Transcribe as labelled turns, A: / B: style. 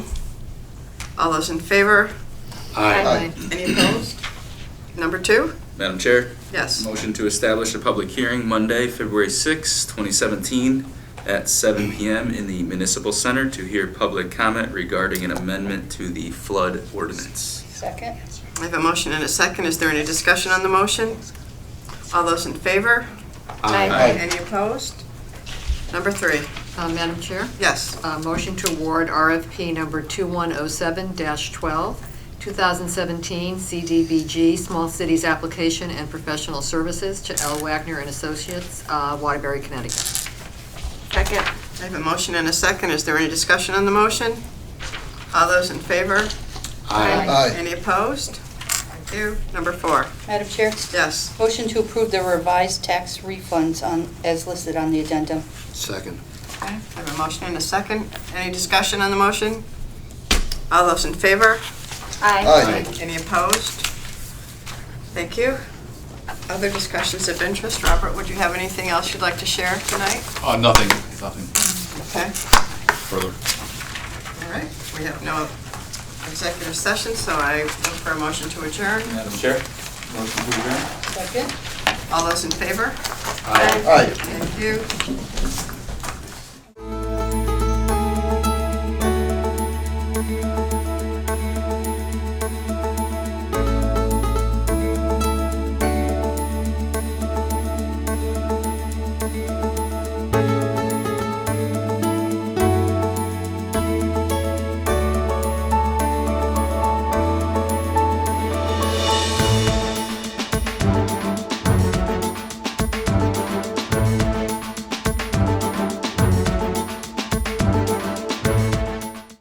A: All those in favor?
B: Aye.
A: Any opposed? Number two?
C: Madam Chair,
A: Yes.
C: motion to establish a public hearing Monday, February 6, 2017, at 7 PM in the Municipal Center to hear public comment regarding an amendment to the flood ordinance.
B: Second?
A: I have a motion and a second. Is there any discussion on the motion? All those in favor?
B: Aye.
A: Any opposed? Number three?
D: Uh, Madam Chair,
A: Yes.
D: uh, motion to award RFP number 2107-12, 2017 CDBG Small Cities Application and Professional Services to L. Wagner and Associates, uh, Waterbury, Connecticut.
A: Second. I have a motion and a second. Is there any discussion on the motion? All those in favor?
B: Aye.
A: Any opposed? Thank you. Number four?
B: Madam Chair,
A: Yes.
B: motion to approve the revised tax refunds on, as listed on the addendum.
E: Second.
A: Okay. I have a motion and a second. Any discussion on the motion? All those in favor?
E: Aye.
A: Any opposed? Thank you. Other discussions of interest? Robert, would you have anything else you'd like to share tonight?
F: Uh, nothing, nothing
A: Okay,
F: further.
A: all right. We have no executive session, so I look for a motion to adjourn.
C: Madam Chair, motion to adjourn?
B: Second?
A: All those in favor?
E: Aye.
A: Thank you.